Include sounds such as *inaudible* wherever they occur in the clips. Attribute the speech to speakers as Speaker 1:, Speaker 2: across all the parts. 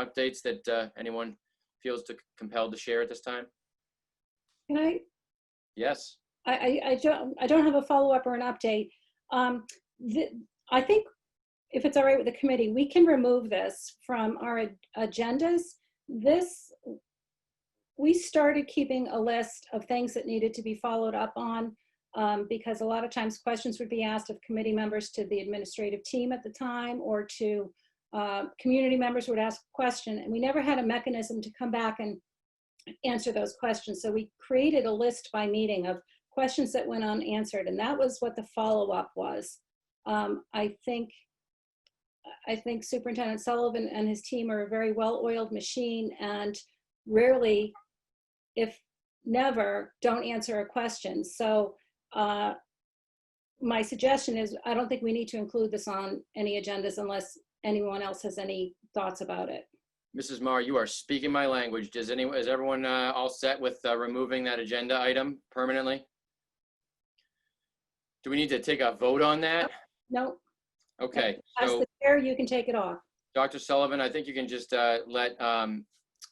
Speaker 1: updates that uh, anyone feels to- compelled to share at this time?
Speaker 2: Can I,
Speaker 1: Yes.
Speaker 2: I, I, I don't, I don't have a follow-up or an update. Um, the, I think if it's all right with the committee, we can remove this from our ag- agendas. This, we started keeping a list of things that needed to be followed up on um, because a lot of times questions would be asked of committee members to the administrative team at the time or to uh, community members would ask a question and we never had a mechanism to come back and answer those questions. So we created a list by meeting of questions that went unanswered, and that was what the follow-up was. Um, I think, I think Superintendent Sullivan and his team are a very well-oiled machine and rarely, if never, don't answer a question. So, uh, my suggestion is, I don't think we need to include this on any agendas unless anyone else has any thoughts about it.
Speaker 1: Mrs. Mar, you are speaking my language. Does anyone, is everyone uh, all set with uh, removing that agenda item permanently? Do we need to take a vote on that?
Speaker 2: No,
Speaker 1: Okay.
Speaker 2: as
Speaker 1: so-
Speaker 2: the chair, you can take it off.
Speaker 1: Dr. Sullivan, I think you can just uh, let um,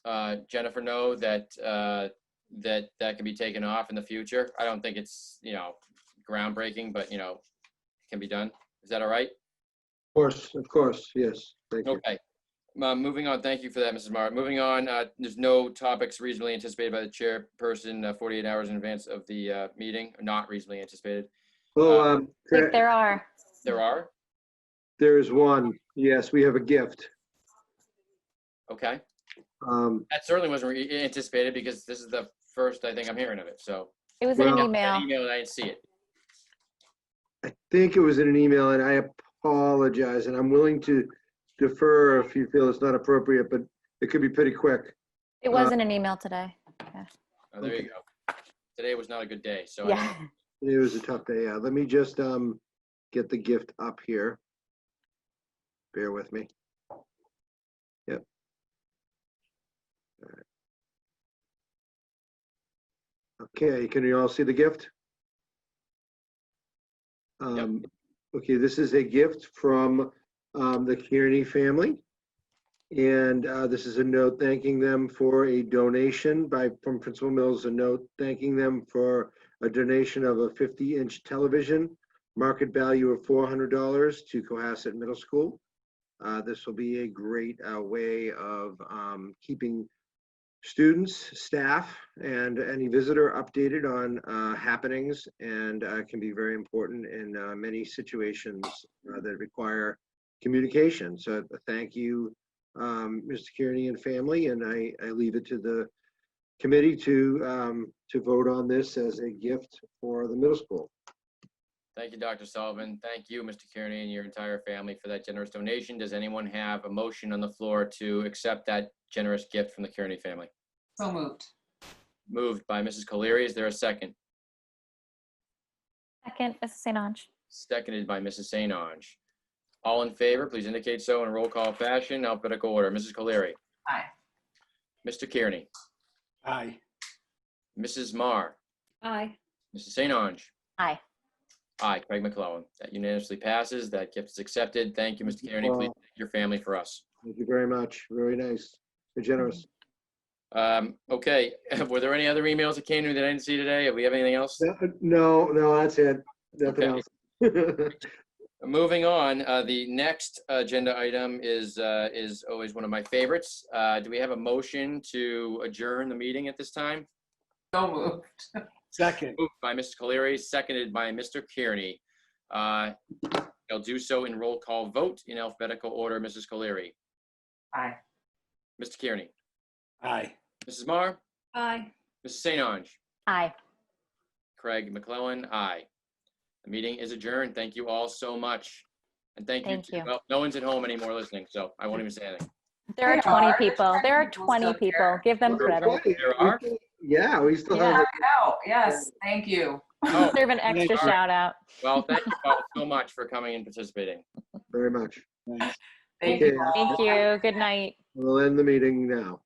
Speaker 1: uh, Jennifer know that, uh, that that can be taken off in the future. I don't think it's, you know, groundbreaking, but, you know, can be done. Is that all right?
Speaker 3: Of course, of course, yes, thank you.
Speaker 1: Okay. Uh, Moving on, thank you for that, Mrs. Mara. Moving on, uh, there's no topics reasonably anticipated by the chairperson uh, 48 hours in advance of the uh, meeting, not reasonably anticipated.
Speaker 3: Oh, um,
Speaker 4: think there are.
Speaker 1: There are?
Speaker 3: there is one, yes, we have a gift.
Speaker 1: Okay.
Speaker 3: Um,
Speaker 1: That certainly wasn't re- anticipated because this is the first I think I'm hearing of it, so.
Speaker 4: It was in an
Speaker 3: Well-
Speaker 1: That
Speaker 4: email.
Speaker 1: Email, and I didn't see it.
Speaker 3: I think it was in an email and I apologize and I'm willing to defer if you feel it's not appropriate, but it could be pretty quick.
Speaker 4: It was in an email today.
Speaker 1: Oh, there you
Speaker 3: Okay.
Speaker 1: go. Today was not a good day, so. I
Speaker 4: Yeah.
Speaker 1: don't-
Speaker 3: It was a tough day, yeah. Let me just, um, get the gift up here. Bear with me. Yep. All right. Okay, can you all see the gift? Um, okay, this is a gift from, um, the Kearney family. And, uh, this is a note thanking them for a donation by, from Principal Mills, a note thanking them for a donation of a 50-inch television, market value of $400 to Cohasset Middle School. Uh, This will be a great uh, way of um, keeping students, staff, and any visitor updated on uh, happenings and uh, can be very important in uh, many situations uh, that require communication. So uh, thank you, um, Mr. Kearney and family, and I I leave it to the committee to, um, to vote on this as a gift for the middle school.
Speaker 1: Thank you, Dr. Sullivan. Thank you, Mr. Kearney, and your entire family for that generous donation. Does anyone have a motion on the floor to accept that generous gift from the Kearney family?
Speaker 5: So moved.
Speaker 1: Moved by Mrs. Colery. Is there a second?
Speaker 4: Second, Mrs. St. Ange.
Speaker 1: Seconded by Mrs. St. Ange. All in favor, please indicate so in roll call fashion, alphabetical order. Mrs. Colery,
Speaker 5: Aye.
Speaker 1: Mr. Kearney,
Speaker 6: Aye.
Speaker 1: Mrs. Marr,
Speaker 2: Aye.
Speaker 1: Mrs. St. Ange.
Speaker 4: Aye.
Speaker 1: Aye, Craig McClellan. That unanimously passes. That gift is accepted. Thank you, Mr. Kearney. Please thank your family for us.
Speaker 3: Thank you very much. Very nice. Very generous.
Speaker 1: Um, okay, *laughs* were there any other emails that came to me that I didn't see today? Do we have anything else?
Speaker 3: No, no, that's it. Nothing
Speaker 1: Okay.
Speaker 3: else. All
Speaker 1: Moving on, uh, the next agenda item is, uh, is always one of my favorites. Uh, do we have a motion to adjourn the meeting at this time?
Speaker 5: So moved.
Speaker 6: Second.
Speaker 1: Moved by Mr. Caleri, seconded by Mr. Kearney. Uh, I'll do so in roll call vote in alphabetical order. Mrs. Caleri,
Speaker 5: Aye.
Speaker 1: Mr. Kearney,
Speaker 6: Aye.
Speaker 1: Mrs. Mar,
Speaker 2: Aye.
Speaker 1: Mrs. St. Ange,
Speaker 4: Aye.
Speaker 1: Craig McClellan, aye. The meeting is adjourned. Thank you all so much. And thank you.
Speaker 4: Thank
Speaker 1: to-
Speaker 4: you.
Speaker 1: Well, no one's at home anymore listening, so I
Speaker 4: *laughs*
Speaker 1: won't even say anything.
Speaker 4: There are
Speaker 5: There
Speaker 4: 20
Speaker 5: are.
Speaker 4: people. There are
Speaker 5: There's
Speaker 4: 20
Speaker 5: still
Speaker 4: people.
Speaker 5: there.
Speaker 4: Give them credit.
Speaker 1: There are?
Speaker 3: Yeah, we still
Speaker 4: Yeah.
Speaker 3: have, it.
Speaker 5: No, yes, thank you.
Speaker 1: Oh,
Speaker 4: Serve an extra
Speaker 6: Alright.
Speaker 4: shout out.
Speaker 1: Well, thank you all so much for coming and participating.
Speaker 3: very much.
Speaker 6: Thanks.
Speaker 5: Thank
Speaker 3: Okay.
Speaker 5: you all.
Speaker 4: Thank you. Good night.
Speaker 3: We'll end the meeting now.